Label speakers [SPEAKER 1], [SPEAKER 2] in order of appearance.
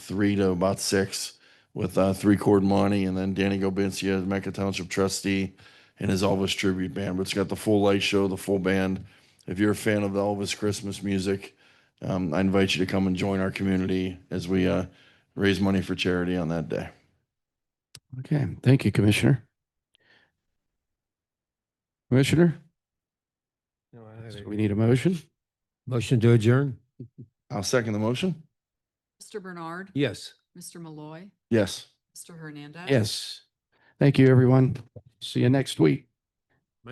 [SPEAKER 1] three to about six with uh, three chord money, and then Danny Gobincia, is Mecca Township trustee, and his Elvis tribute band. But it's got the full light show, the full band. If you're a fan of the Elvis Christmas music, um, I invite you to come and join our community as we uh, raise money for charity on that day.
[SPEAKER 2] Okay, thank you, Commissioner. Commissioner, so we need a motion?
[SPEAKER 3] Motion to adjourn?
[SPEAKER 1] I'll second the motion.
[SPEAKER 4] Mr. Bernard.
[SPEAKER 3] Yes.
[SPEAKER 4] Mr. Malloy.
[SPEAKER 1] Yes.
[SPEAKER 4] Mr. Hernandez.
[SPEAKER 2] Yes. Thank you, everyone. See you next week.